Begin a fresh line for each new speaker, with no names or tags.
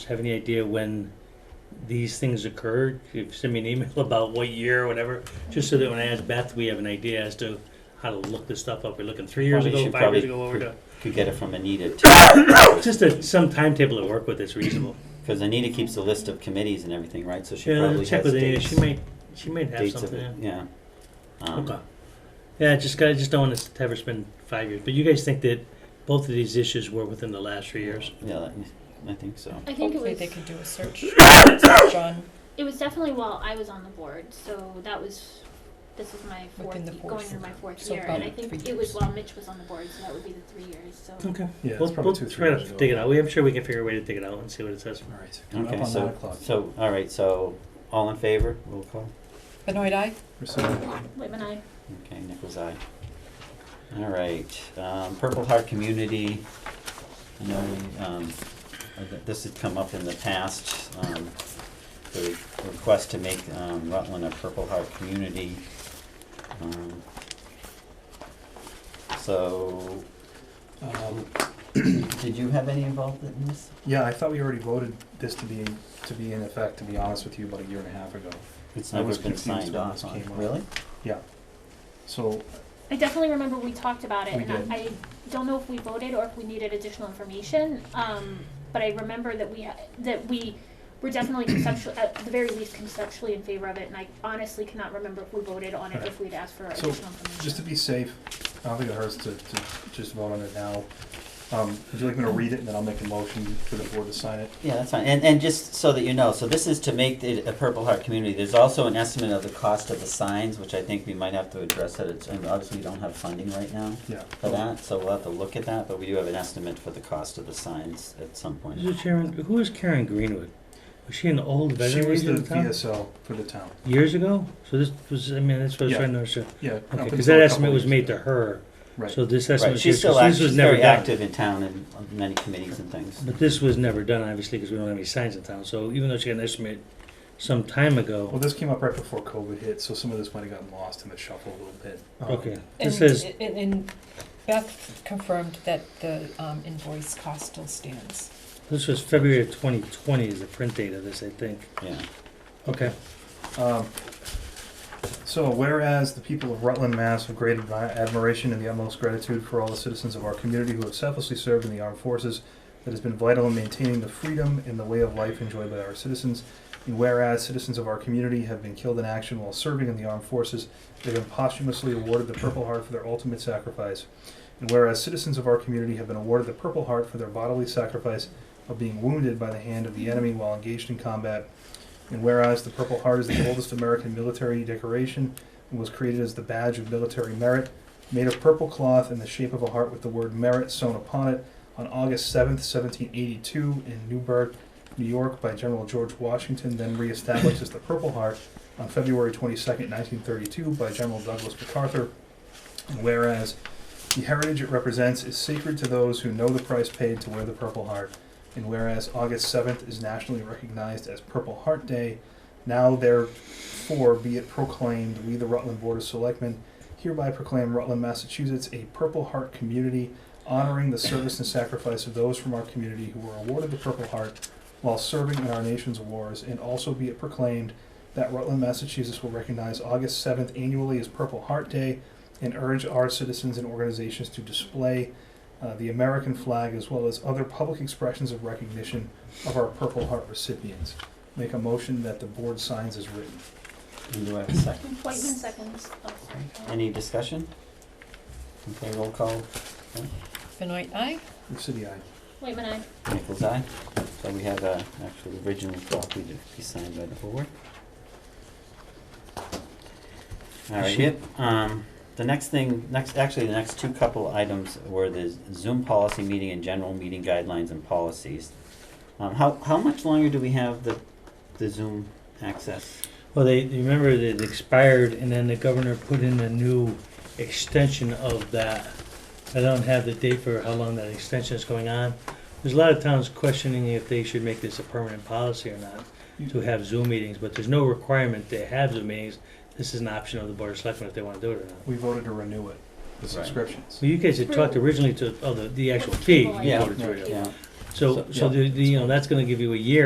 have any idea when these things occurred? If send me an email about what year or whatever, just so that when I ask Beth, we have an idea as to how to look this stuff up. We're looking three years
Probably
ago,
should
five years
probably
ago, what we're doing.
Could get it from Anita too,
Just a, some timetable to work with that's reasonable.
because Anita keeps a list of committees and everything, right? So she
Yeah, I'll
probably
check
has
with Anita,
dates.
she might, she might have
dates of
something.
it,
yeah.
yeah. Um,
Okay. Yeah, just got, just don't want to have her spend five years. But you guys think that both of these issues were within the last three years?
Yeah, that- I think so.
I think it
Hopefully
was
they could do a search, search on
it was definitely while I was on the board, so that was this was my fourth
Within the
going
fourth,
into my fourth
so
year,
about
and I think
three
it was
years.
while Mitch was on the board, so that would be the three years. So
Okay.
Yeah,
We'll,
it's probably
we'll
two,
try
three years
to
ago.
dig it out. We have sure we can figure a way to dig it out and see what it says.
All right, so coming
Okay,
up on nine
so,
o'clock.
so, all right, so, all in favor, roll call?
Benoit Eye.
Pursuant-
Whitman, I
Okay, Nichols eye. All right, um, Purple Heart Community, I know we, um, uh, th- this had come up in the past, um, the request to make, um, Rutland a Purple Heart Community. Um, So,
um,
did you have any involvement in this?
Yeah, I thought we already voted this to be, to be in effect, to be honest with you, about a year and a half ago.
It's
I
never
was
been
confused when
signed off
this
on,
came up.
really?
Yeah. So,
I definitely remember we talked about it,
We
and
did.
I, I don't know if we voted or if we needed additional information. Um, but I remember that we ha- that we were definitely conceptually, at the very least, conceptually in favor of it. And I honestly cannot remember if we voted on it if we'd asked for
So,
additional information.
just to be safe, I don't think it hurts to, to just vote on it now. Um, would you like me to read it and then I'll make a motion for the board to sign it?
Yeah, that's fine. And, and just so that you know, so this is to make it a Purple Heart community. There's also an estimate of the cost of the signs, which I think we might have to address that it's, and obviously we don't have funding right now
Yeah.
for that, so we'll have to look at that, but we do have an estimate for the cost of the signs at some point.
Mr. Chairman, who is Karen Greenwood? Was she an old
She
veteran
was the
of the town?
VSL for the town.
Years ago? So this was, I mean, that's what I was
Yeah.
trying to understand.
Yeah. up
Okay, because
until a
that
couple
estimate was
years
made
ago.
to her.
Right.
So this estimate
Right,
was here,
she's
so
still act,
this was
she's
never
very
done.
active in town and on many committees and things.
But this was never done, obviously, because we don't have any signs in town. So even though she got an estimate some time
Well,
ago,
this came up right before COVID hit, so some of this might have gotten lost in the shuffle a little bit. Um,
okay,
And,
this is
and, and Beth confirmed that the um, invoice cost still stands.
this was February of 2020 is the print date of this, I think.
Yeah,
Okay.
Um, so, whereas the people of Rutland, Mass, have great admi- admiration and the utmost gratitude for all the citizens of our community who have selflessly served in the armed forces, that has been vital in maintaining the freedom and the way of life enjoyed by our citizens. And whereas citizens of our community have been killed in action while serving in the armed forces, they've been posthumously awarded the Purple Heart for their ultimate sacrifice. And whereas citizens of our community have been awarded the Purple Heart for their bodily sacrifice of being wounded by the hand of the enemy while engaged in combat. And whereas the Purple Heart is the oldest American military decoration and was created as the badge of military merit, made of purple cloth in the shape of a heart with the word merit sewn upon it on August 7th, 1782, in Newburgh, New York, by General George Washington, then reestablished as the Purple Heart on February 22nd, 1932, by General Douglas MacArthur. And whereas the heritage it represents is sacred to those who know the price paid to wear the Purple Heart. And whereas August 7th is nationally recognized as Purple Heart Day, now therefore be it proclaimed, we the Rutland Board of Selectmen hereby proclaim Rutland, Massachusetts a Purple Heart community, honoring the service and sacrifice of those from our community who were awarded the Purple Heart while serving in our nation's wars, and also be it proclaimed that Rutland, Massachusetts will recognize August 7th annually as Purple Heart Day and urge our citizens and organizations to display uh, the American flag, as well as other public expressions of recognition of our Purple Heart recipients. Make a motion that the board signs as written.
and do I have a second?
Whitman seconds. Oh, sorry.
Any discussion? Okay, roll call,
Benoit Eye.
Lip City, aye.
Whitman, I.
Nichols eye. So we have a, actually original copy to be signed by the board. All right,
She-
yep, um, the next thing, next, actually, the next two couple items were the Zoom policy meeting and general meeting guidelines and policies. Um, how, how much longer do we have the, the Zoom access?
Well, they you remember it expired, and then the governor put in a new extension of that. I don't have the date for how long that extension is going on. There's a lot of towns questioning if they should make this a permanent policy or not to have Zoom meetings, but there's no requirement to have Zoom meetings. This is an option of the board of selectmen if they want to do it or not.
We voted to renew it, the
Right.
subscriptions.
So you guys had talked originally to oh, the, the actual fee. you
People
like-
voted to
Yeah.
it.
Yeah,
So so the, the you know that's going to give you a year.